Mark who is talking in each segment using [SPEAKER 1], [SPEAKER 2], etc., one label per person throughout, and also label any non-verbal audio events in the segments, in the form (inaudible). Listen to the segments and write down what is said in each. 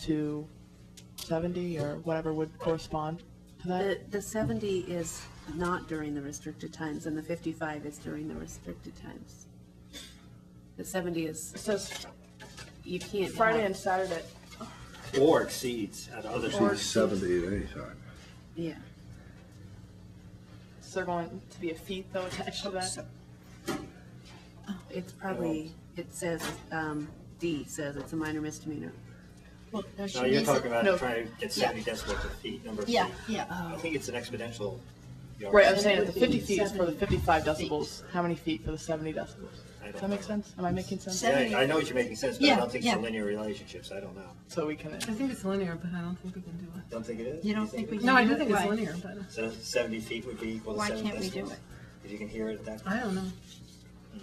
[SPEAKER 1] to 70 or whatever would correspond to that?
[SPEAKER 2] The, the 70 is not during the restricted times, and the 55 is during the restricted times. The 70 is,
[SPEAKER 3] It says
[SPEAKER 2] you can't.
[SPEAKER 3] Friday
[SPEAKER 2] have-
[SPEAKER 3] and Saturday.
[SPEAKER 4] Or exceeds at other
[SPEAKER 5] She's
[SPEAKER 4] times.
[SPEAKER 5] seventy at any time.
[SPEAKER 2] Yeah,
[SPEAKER 3] Is there going to be a fee though attached to that?
[SPEAKER 2] it's probably, it says, um, D says it's a minor misdemeanor.
[SPEAKER 6] Well, no, she
[SPEAKER 4] No, you're
[SPEAKER 6] needs
[SPEAKER 4] talking
[SPEAKER 6] it-
[SPEAKER 4] about
[SPEAKER 6] no.
[SPEAKER 4] trying to get
[SPEAKER 6] Yeah.
[SPEAKER 4] seventy decibels of feet, number of feet.
[SPEAKER 6] Yeah, uh, yeah.
[SPEAKER 4] I think it's an exponential. yard.
[SPEAKER 3] Right, I'm
[SPEAKER 6] Then
[SPEAKER 3] saying
[SPEAKER 6] it
[SPEAKER 3] the
[SPEAKER 6] would
[SPEAKER 3] fifty
[SPEAKER 6] be
[SPEAKER 3] feet is for the
[SPEAKER 6] 70
[SPEAKER 3] fifty-five
[SPEAKER 6] feet.
[SPEAKER 3] decibels, how many feet for the seventy decibels?
[SPEAKER 4] I
[SPEAKER 3] Does that
[SPEAKER 4] don't know.
[SPEAKER 3] make sense? Am I making sense?
[SPEAKER 6] Se-
[SPEAKER 4] Yeah, I know what you're making sense, but I
[SPEAKER 6] Yeah,
[SPEAKER 4] don't think it's a
[SPEAKER 6] yeah.
[SPEAKER 4] linear relationship, so I don't know.
[SPEAKER 3] So we can,
[SPEAKER 7] I think it's linear, but I don't think we can do it.
[SPEAKER 4] Don't think it is?
[SPEAKER 6] You don't think we
[SPEAKER 4] it
[SPEAKER 6] can
[SPEAKER 4] is?
[SPEAKER 7] No, I
[SPEAKER 6] do
[SPEAKER 7] do
[SPEAKER 6] it?
[SPEAKER 7] think it's
[SPEAKER 6] Why?
[SPEAKER 7] linear, but
[SPEAKER 4] So seventy feet would be equal to
[SPEAKER 6] Why
[SPEAKER 4] seven
[SPEAKER 6] can't we do
[SPEAKER 4] decibels?
[SPEAKER 6] it? Uh,
[SPEAKER 4] If you can hear it at that.
[SPEAKER 7] I don't know.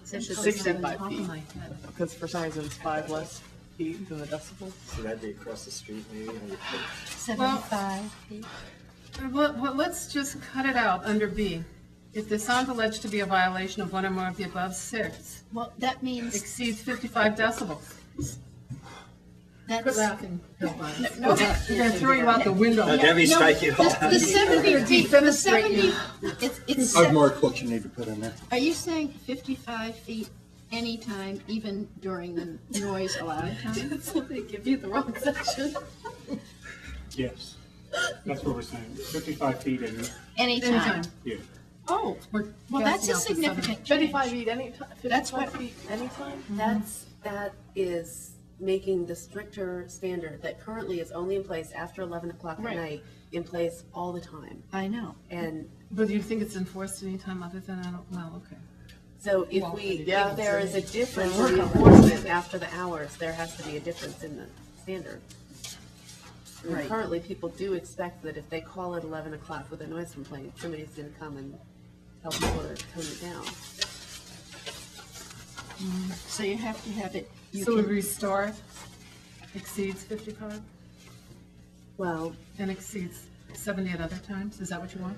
[SPEAKER 6] So she's-
[SPEAKER 3] 65
[SPEAKER 7] Top
[SPEAKER 3] feet.
[SPEAKER 7] of my head.
[SPEAKER 3] because for some reason it's five less feet than the decibels.
[SPEAKER 4] So that'd be across the street maybe. and you-
[SPEAKER 6] Seventy-five feet.
[SPEAKER 7] Well, well, let's just cut it out under B. If the sound alleged to be a violation of one or more of the above six
[SPEAKER 6] Well, that means
[SPEAKER 7] exceeds fifty-five decibels.
[SPEAKER 6] that's.
[SPEAKER 7] Quit laughing. You're gonna throw you out the window.
[SPEAKER 4] Uh, Debbie's
[SPEAKER 6] No,
[SPEAKER 4] striking it off.
[SPEAKER 6] The the seventy feet, the seventy, it's, it's,
[SPEAKER 8] I've
[SPEAKER 6] se-
[SPEAKER 8] marked what you need to put in there.
[SPEAKER 6] are you saying fifty-five feet anytime, even during the noise allowed time?
[SPEAKER 2] They give you the wrong section.
[SPEAKER 9] Yes, that's what we're saying, fifty-five feet and,
[SPEAKER 6] Anytime.
[SPEAKER 9] yeah.
[SPEAKER 6] Oh,
[SPEAKER 7] We're
[SPEAKER 6] well, that's
[SPEAKER 7] gassing
[SPEAKER 6] a
[SPEAKER 7] out the seven.
[SPEAKER 6] significant change.
[SPEAKER 3] Fifty-five feet anytime,
[SPEAKER 6] That's what-
[SPEAKER 3] fifty-five feet anytime?
[SPEAKER 2] Mm-hmm. That's, that is making the stricter standard that currently is only in place after 11 o'clock at
[SPEAKER 6] Right.
[SPEAKER 2] night, in place all the time.
[SPEAKER 6] I know.
[SPEAKER 2] And
[SPEAKER 7] But do you think it's enforced any time other than, I don't, well, okay.
[SPEAKER 2] So if
[SPEAKER 7] Well,
[SPEAKER 2] we,
[SPEAKER 3] yeah.
[SPEAKER 2] if there is a difference
[SPEAKER 3] Then
[SPEAKER 2] in
[SPEAKER 3] we're
[SPEAKER 2] the
[SPEAKER 3] covered.
[SPEAKER 2] enforcement after the hours, there has to be a difference in the standard. I mean,
[SPEAKER 6] Right.
[SPEAKER 2] Currently, people do expect that if they call at eleven o'clock with a noise complaint, somebody's gonna come and tell people to tone it down.
[SPEAKER 6] So you have to have it, you
[SPEAKER 7] So we
[SPEAKER 6] can,
[SPEAKER 7] restore exceeds fifty-five
[SPEAKER 2] Well,
[SPEAKER 7] and exceeds seventy at other times? Is that what you want?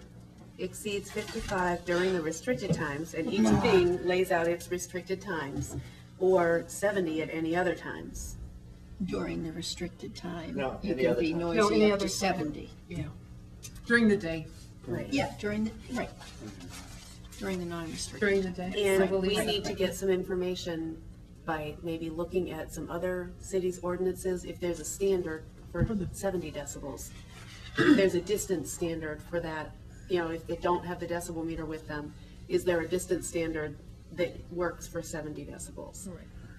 [SPEAKER 2] exceeds fifty-five during the restricted times, and each thing lays out its restricted times, or seventy at any other times.
[SPEAKER 6] during the restricted time,
[SPEAKER 4] No,
[SPEAKER 6] you
[SPEAKER 4] any
[SPEAKER 6] can
[SPEAKER 4] other
[SPEAKER 6] be
[SPEAKER 4] time. No,
[SPEAKER 7] any
[SPEAKER 6] noisy up to
[SPEAKER 7] other time.
[SPEAKER 6] seventy.
[SPEAKER 7] Yeah. During the day.
[SPEAKER 2] Right.
[SPEAKER 6] Yeah, during the, right. During the non-restricted.
[SPEAKER 7] During the day.
[SPEAKER 2] And
[SPEAKER 7] Right.
[SPEAKER 2] we need to get some information by maybe looking at some other cities' ordinances, if there's a standard for seventy decibels. If There's a distance standard for that, you know, if they don't have the decibel meter with them, is there a distance standard that works for seventy decibels?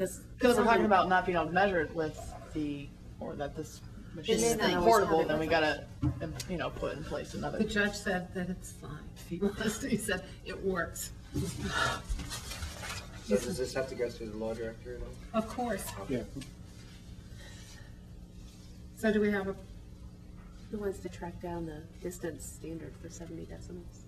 [SPEAKER 2] Because
[SPEAKER 3] Because we're talking about not being able to measure it with the, or that this machine
[SPEAKER 2] It may
[SPEAKER 3] is
[SPEAKER 2] not always
[SPEAKER 3] portable,
[SPEAKER 2] have it
[SPEAKER 3] then we
[SPEAKER 2] with
[SPEAKER 3] gotta, um, you know, put in place another.
[SPEAKER 7] The judge said that it's fine. (laughs) If he wants to, he said it works.
[SPEAKER 4] So does this have to go through the law director at all?
[SPEAKER 7] Of course.
[SPEAKER 9] Yeah.
[SPEAKER 7] So do we have a,
[SPEAKER 2] Who wants to track down the distance standard for seventy decibels?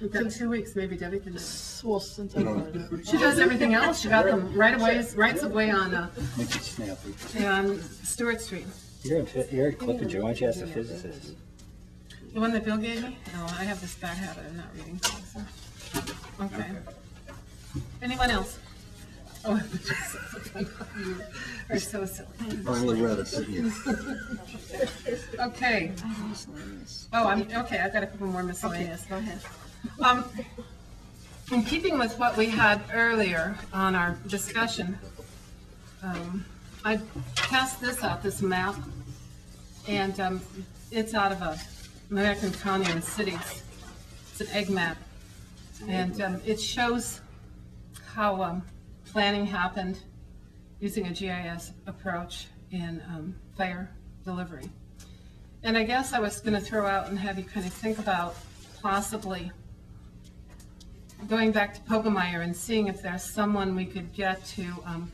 [SPEAKER 7] we've got two weeks, maybe Debbie can.
[SPEAKER 3] Well, since I'm already-
[SPEAKER 7] She does everything else. She got them right away, rights of way on, uh,
[SPEAKER 8] Make it snappy.
[SPEAKER 7] on Stewart Street.
[SPEAKER 4] You're in, you're in Clippinger, why don't you ask a physicist?
[SPEAKER 7] The one that Bill gave me? No, I have this bad habit of not reading things. so- Okay. Anyone else? Oh, (laughs) you are so silly.
[SPEAKER 8] Finally read it, didn't you?
[SPEAKER 7] Okay. Oh, I'm, okay, I've got a couple more miscellaneous.
[SPEAKER 6] Go ahead.
[SPEAKER 7] Um, in keeping with what we had earlier on our discussion, um, I passed this out, this map, and, um, it's out of a American county and cities. It's an egg map. And, um, it shows how, um, planning happened using a GIS approach in, um, fire delivery. And I guess I was gonna throw out and have you kind of think about possibly going back to Pogemeyer and seeing if there's someone we could get to um,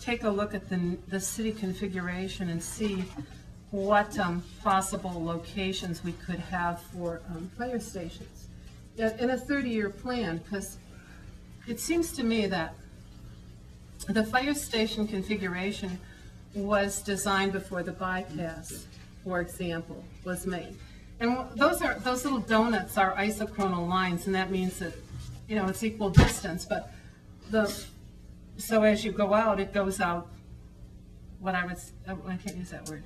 [SPEAKER 7] take a look at the, the city configuration and see what um, possible locations we could have for um, fire stations in in a 30-year plan, because it seems to me that the fire station configuration was designed before the bypass, for example, was made. And wh- those are, those little donuts are isochronal lines, and that means that, you know, it's equal distance, but the, so as you go out, it goes out, what I was, I can't use that word.